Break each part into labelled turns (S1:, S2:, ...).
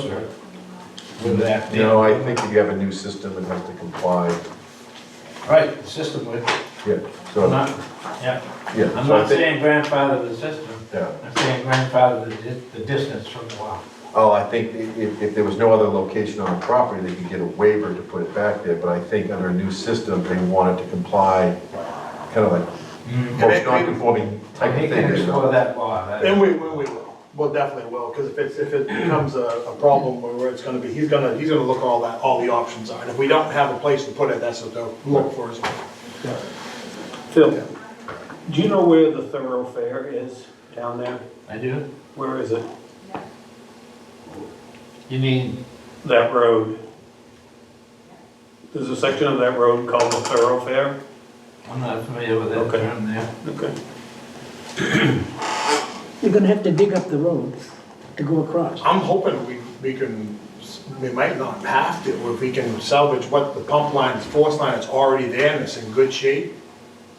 S1: closer with that.
S2: No, I think if you have a new system, it has to comply,
S1: Right, the system would,
S2: yeah, so,
S1: I'm not, yeah,
S2: yeah.
S1: I'm
S2: so I
S1: not
S2: think-
S1: saying grandfather the system,
S2: Yeah,
S1: I'm saying grandfather the, di- the distance from the well.
S2: oh, I think i- if, if there was no other location on the property, they could get a waiver to put it back there, but I think under a new system, they want it to comply, kind of like,
S1: Mm.
S2: most non-conforming
S1: I
S2: type of
S1: hate to
S2: thing. you know.
S1: explore that law, that,
S3: And we, we, we will, well, definitely will, because if it's, if it becomes a, a problem where- where it's gonna be, he's gonna, he's gonna look all that, all the options are, and if we don't have a place to put it, that's what they'll look for as well.
S4: Phil, do you know where the thoroughfare is down there?
S1: I do.
S4: Where is it?
S1: You mean,
S4: That road? There's a section of that road called the thoroughfare?
S1: I'm not familiar with that
S4: Okay.
S1: term there.
S4: Okay.
S5: You're gonna have to dig up the road to go across.
S3: I'm hoping we, we can, we might not have to, if we can salvage what the pump line, the force line is already there and it's in good shape,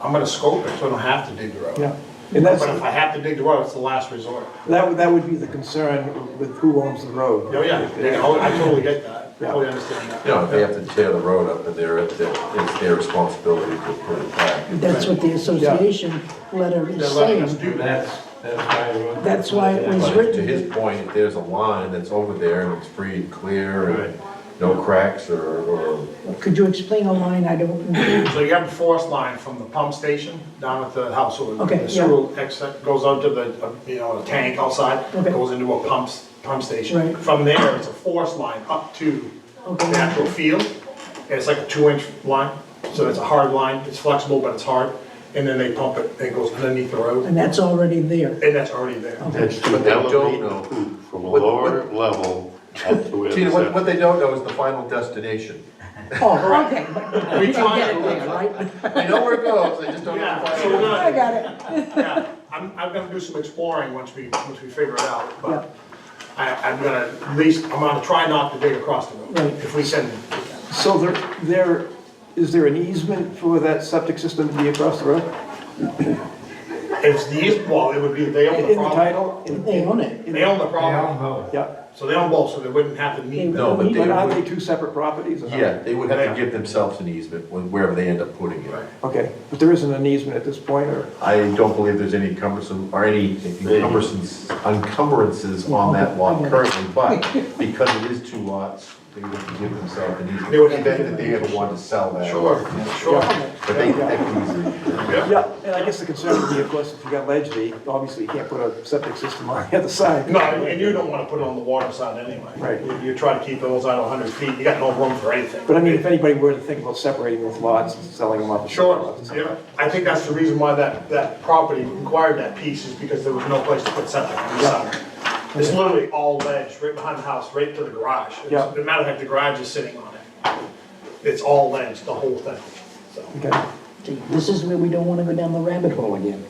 S3: I'm gonna scope it, so I don't have to dig the road.
S6: Yeah, and that's,
S3: But if I have to dig the road, it's the last resort.
S6: that would, that would be the concern with who owns the road.
S3: Oh, yeah, you know, I totally get that, I totally understand that.
S2: You know, if they have to tear the road up, and they're, it's their responsibility to put it back.
S5: That's what the association letter
S3: They're
S5: is
S3: letting us
S5: saying.
S3: do that.
S1: That's, that's why I wrote.
S5: That's why it was
S2: But to
S5: written,
S2: his point, if there's a line that's over there and it's free and clear and no cracks or, or
S5: could you explain a line I don't, know.
S3: So you have a force line from the pump station down at the house, so
S5: Okay,
S3: the
S5: yeah.
S3: sewer exit goes out to the, uh, you know, the tank outside,
S5: Okay.
S3: goes into a pump, s- pump station.
S5: Right.
S3: From there, it's a force line up to the
S5: Okay.
S3: actual field, and it's like a two-inch line, so it's a hard line, it's flexible, but it's hard, and then they pump it, and it goes underneath the road,
S5: and that's already there.
S3: and that's already there.
S7: That's
S2: But they
S7: to
S2: don't
S7: elevate
S2: know.
S7: the poop from a
S2: What-
S7: lower level up to where
S2: Gina, what,
S7: the
S2: what they don't know is the final destination.
S5: Oh, okay, but
S3: We
S5: I
S3: try
S5: get
S3: to
S5: it there, right?
S2: They know where it goes, they just don't know the
S3: Yeah, so
S2: final.
S3: we're
S2: destination.
S5: I
S3: gonna,
S5: got it.
S3: yeah, I'm, I'm gonna do some exploring once we, once we figure it out,
S5: Yeah.
S3: but I, I'm gonna, at least, I'm gonna try not to dig across the road,
S5: Right.
S3: if we send them.
S6: So there, there, is there an easement for that septic system to be across the road?
S3: It's the east wall, it would be, they own the
S6: In the
S3: property.
S6: title? In-
S5: They own it.
S3: They own
S1: They
S3: the
S1: all
S3: property,
S1: know.
S6: Yeah,
S3: so they own both, so they wouldn't have to meet.
S2: No, but
S6: but are
S2: they,
S6: they two separate properties? or not?
S2: yeah, they would have to give themselves an easement when- wherever they end up putting it.
S6: Okay, but there isn't an easement at this point, or?
S2: I don't believe there's any cumbersome, or any encumbrances, encumbrances on that lot currently, but because it is two lots, they would have to give themselves an easement.
S3: They would-
S2: In the event that they ever want to sell that.
S3: Sure, sure.
S2: But they, that can easily.
S6: Yeah, and I guess the concern would be, of course, if you got ledge, they, obviously you can't put a septic system on the other side.
S3: No, and you don't wanna put it on the water side anyway.
S6: Right.
S3: You- You try to keep those out hundred feet, you got no room for anything.
S6: But I mean, if anybody were to think about separating those lots and selling them off. as
S3: Sure,
S6: lots or something.
S3: yeah, I think that's the reason why that, that property required that piece, is because there was no place to put septic on the side. It's literally all ledge, right behind the house, right to the garage. It's-
S6: Yeah.
S3: As a matter of fact, the garage is sitting on it. It's all ledge, the whole thing, so.
S6: Okay.
S5: See, This is where we don't wanna go down the rabbit hole again.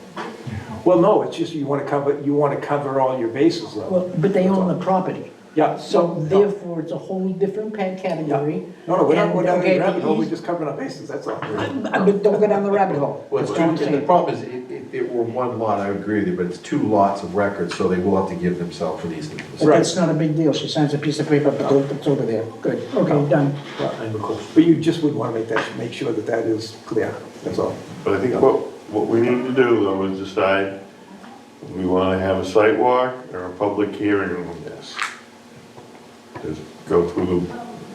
S6: Well, no, it's just you want to cover, you want to cover all your bases
S5: Well,
S6: though.
S5: but they own the property.
S6: Yeah.
S5: So
S6: no, no.
S5: therefore, it's a whole different pa- category.
S6: No, no, we're not,
S5: And,
S6: we're not
S5: okay,
S6: in
S5: the
S6: rabbit hole, we're
S5: eas-
S6: just covering our bases, that's all.
S5: But don't go down the rabbit hole.
S2: Well,
S5: That's
S2: it's
S5: what I'm
S2: two, and the
S5: saying.
S2: problem is, if, if it were one lot, I would agree with you, but it's two lots of records, so they will have to give themselves an easement.
S5: But that's not a big deal. She signs a piece of paper, but it's over there. Good, okay, done.
S6: But you just would want to make that, make sure that that is clear, that's all.
S7: But I think what, what we need to do though is decide, we wanna have a site walk or a public hearing on this. Just go through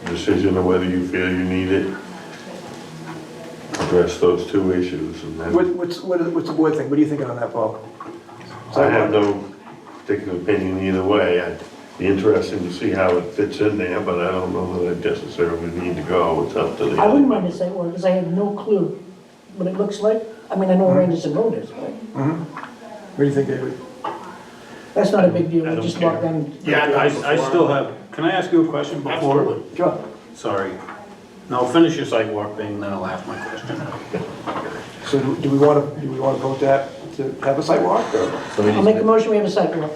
S7: the decision of whether you feel you need it. Address those two issues and
S6: What,
S7: then,
S6: what's, what is- what's the board think, what are you thinking on that, Paul?
S7: I have no particular opinion either way. I'd be interesting to see how it fits in there, but I don't know that I necessarily need to go, it's up to the.
S5: I wouldn't mind a site walk, because I have no clue what it looks like. I mean, I know
S7: Hmm.
S5: where Anderson Road is, but
S6: What do you think, David?
S5: that's not a big deal,
S7: I
S5: I
S7: don't
S5: just walk
S7: care.
S5: down.
S3: Yeah,
S4: I, I still have, can I ask you a question before?
S3: Absolutely.
S6: Sure.
S4: Sorry. No, finish your site walk thing, then I'll ask my question.
S6: So do do we want to, do we want to vote that, to have a site walk, or
S2: So we
S5: I'll
S2: need
S5: make a
S2: to-
S5: motion, we have a site walk.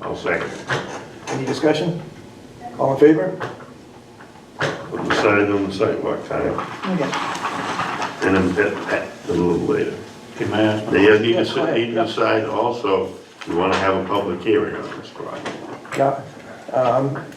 S7: I'll second.
S6: any discussion? All in favor?
S7: We'll decide on the sidewalk time,
S5: Okay.
S7: and then pet, pet a little later.
S4: Can I ask? my-
S7: They need to,
S6: Yes, go
S7: decide-
S6: ahead,
S7: need to
S6: yeah.
S7: decide also, we wanna have a public hearing on this project.
S6: Yeah. Um,